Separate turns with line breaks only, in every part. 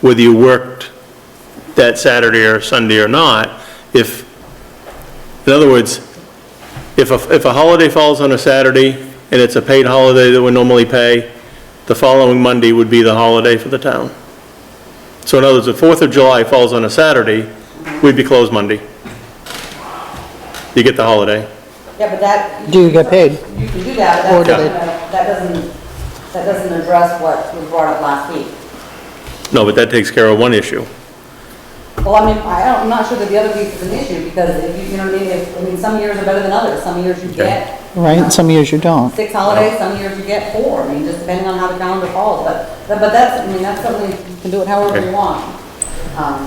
whether you worked that Saturday or Sunday or not, if, in other words, if a, if a holiday falls on a Saturday and it's a paid holiday that we normally pay, the following Monday would be the holiday for the town. So in other words, if Fourth of July falls on a Saturday, we'd be closed Monday. You get the holiday.
Yeah, but that,
Do you get paid?
you can do that,
Or
but
do
that doesn't,
they-
that doesn't, that doesn't address what was brought up last week.
No, but that takes care of one issue.
Well, I mean, I don't, I'm not sure that the other piece is an issue, because if you, you know, what I mean, if, I mean, some years are better than others, some years you get. you know,
Right, some years you don't.
Six holidays, some years you get four, I mean, just depending on how the calendar falls, but, but but that's, I mean, that's something, you can do it however you
Okay.
want. Um,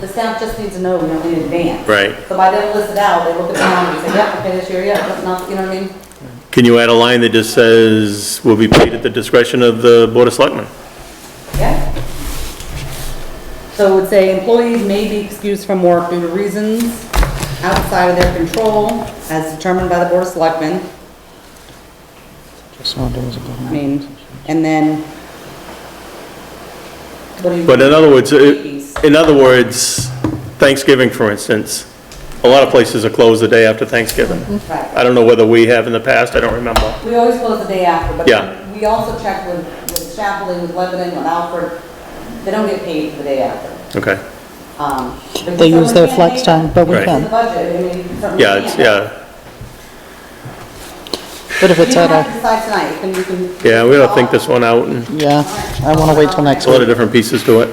The staff just needs to know, you know, in advance.
Right.
So by them list it out, they look at the calendar and say, yeah, okay, this year, yeah, that's not, you know what I mean?
Can you add a line that just says, "Will be paid at the discretion of the Board of Selectmen"?
Yeah. So it would say employees may be excused from work due to reasons outside of their control as determined by the Board of Selectmen.
Just know there was a good
I
one.
mean, and then. what do you-
But in other words,
Employees.
it- in other words, Thanksgiving, for instance, a lot of places are closed the day after Thanksgiving.
Right.
I don't know whether we have in the past, I don't remember.
We always close the day after, but.
Yeah.
We also check with, with Chaplain, with Lebanon, with Alfred, they don't get paid for the day after.
Okay,
Um, but
They use their
someone can't
flex
make
time, but we
it. It's in
can.
the budget, I mean, you certainly
yeah, it's,
can't.
yeah,
But if
You
it's
don't have
at
to
a,
decide tonight, you can, you can.
yeah, we gotta think this one out, and
yeah, I want to wait till next
there's a lot
week.
of different pieces to it.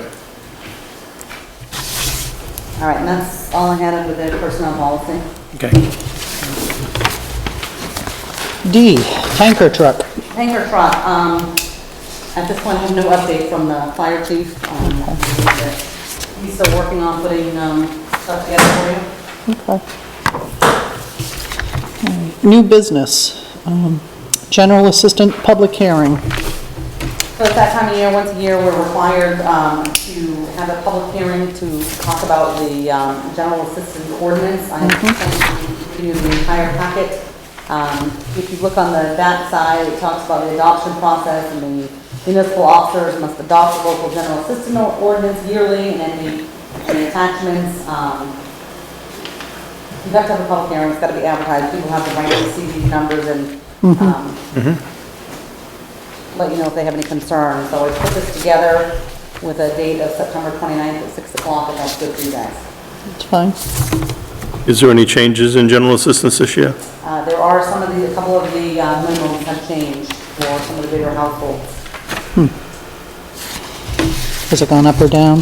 All right, and that's all I had under the personnel policy.
Okay.
D, tanker truck.
Hangar truck, um, at this point, I have no update from the fire chief. um, He's still working on putting, um, stuff together for you.
Okay. New business, um, general assistant, public hearing.
So it's that time of year, once a year, we're required, um, to have a public hearing to talk about the, um, general assistance ordinance. I have sent you the entire packet. Um, if you look on the back side, it talks about the adoption process and the municipal officers must adopt the local general assistance ordinance yearly and then the, the attachments, um, You have to have a public hearing, it's got to be advertised, people have the right to see these numbers and um, let you know if they have any concerns. So I put this together with a date of September 29th at 6 o'clock, and that's good for you guys.
It's fine.
Is there any changes in general assistance this year?
Uh, There are some of the, a couple of the uh, minimums have changed for some of the bigger households.
Has it gone up or down?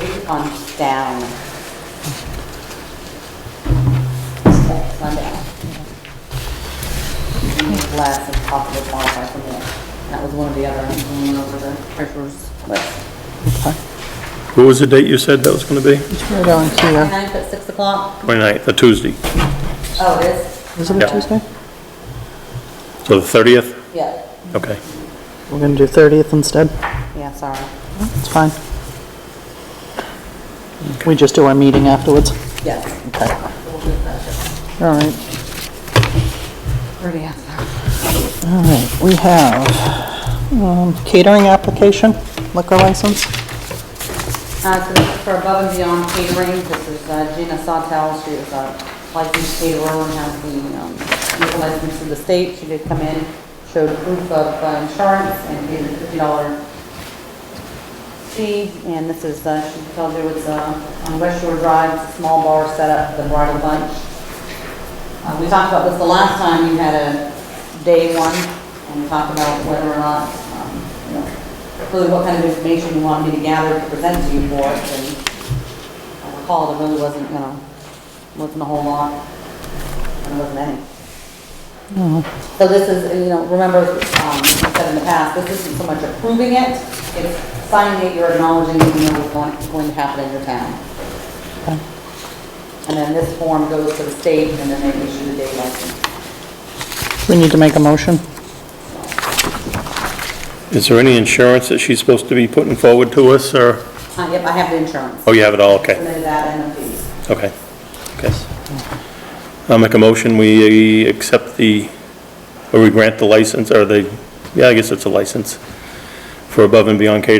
We've gone down. It's gone down. We need Less if possible qualify for more. That was one of the other, one over the treasurer's list.
What was the date you said that was gonna be?
It's right on here.
Ninth at six o'clock?
29th, a Tuesday,
Oh, it is?
Is it a
Yeah.
Tuesday?
so the 30th?
Yeah,
Okay.
We're going to do 30th instead.
yeah, sorry.
It's fine. We just do our meeting afterwards.
Yes.
Okay. All right.
Already asked that.
All right, we have um, catering application, liquor license.
Uh, so this is for Above and Beyond Catering, this is uh, Gina Sawtell, she is a licensed caterer and has the, um, legal license in the state. She did come in, showed proof of uh, insurance and gave a fifty dollar fee. And this is, uh, she tells you it's, uh, on West Shore Drive, it's a small bar setup, the bridal bunch. Uh, We talked about this the last time, you had a day one, and we talked about whether or not, um, you know, really what kind of information you wanted me to gather to present to you for it, and I recall it really wasn't, you know, wasn't a whole lot, and it wasn't any. So this is, you know, remember, um, I said in the past, this isn't so much approving it, it's signing it, you're acknowledging that you know what's going- going to happen in your town. And then this form goes to the state, and then they issue the day license.
We need to make a motion.
Is there any insurance that she's supposed to be putting forward to us, or,
Uh, Yep, I have the insurance.
oh, you have it all, okay.
Submitted that and the fees.
Okay, okay. I'll make a motion, we accept the, or we grant the license, or the, yeah, I guess it's a license for Above and Beyond Catering